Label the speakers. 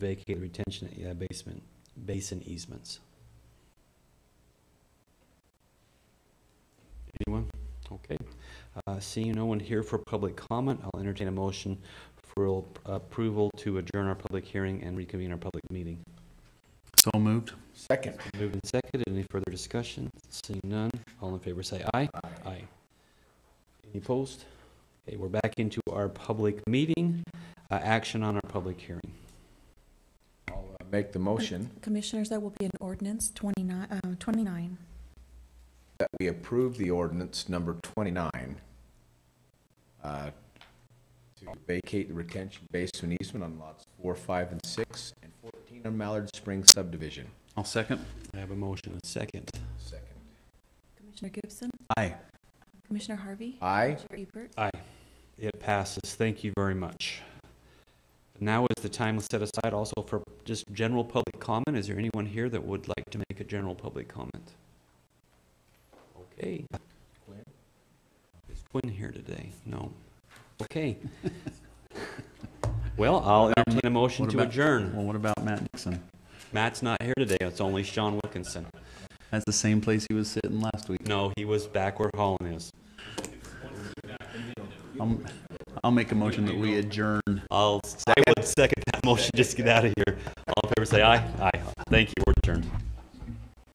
Speaker 1: vacate retention, yeah, basement, basin easements. Anyone? Okay. Uh, Seeing no one here for public comment, I'll entertain a motion for approval to adjourn our public hearing and reconvene our public meeting.
Speaker 2: So moved.
Speaker 3: Second.
Speaker 1: Moved and seconded. Any further discussion? Seeing none, all in favor say aye. Aye. Any opposed? Okay, we're back into our public meeting. Uh, Action on our public hearing.
Speaker 3: I'll uh, make the motion
Speaker 4: Commissioners, that will be an ordinance 29, uh, 29.
Speaker 3: that we approve the ordinance number 29 uh, to vacate the retention basin easement on lots 4, 5, and 6, and 14 on Mallard Springs subdivision.
Speaker 2: I'll second.
Speaker 1: I have a motion and a second.
Speaker 3: Second.
Speaker 4: Commissioner Gibson,
Speaker 2: Aye.
Speaker 4: Commissioner Harvey,
Speaker 3: Aye.
Speaker 4: Chair Ebert.
Speaker 1: Aye. It passes. Thank you very much. Now is the time set aside also for just general public comment. Is there anyone here that would like to make a general public comment? Okay.
Speaker 3: Quinn?
Speaker 1: Is Quinn here today? No. Okay. Well, I'll entertain a motion
Speaker 2: What
Speaker 1: to
Speaker 2: about-
Speaker 1: adjourn.
Speaker 2: Well, what about Matt Nixon?
Speaker 1: Matt's not here today. It's only Sean Wilkinson.
Speaker 2: That's the same place he was sitting last week.
Speaker 1: No, he was back where Holland is.
Speaker 2: I'll, I'll make a motion that we adjourn.
Speaker 1: I'll, I would second that motion. Just get out of here. All in favor, say aye. Aye. Thank you. We're adjourned.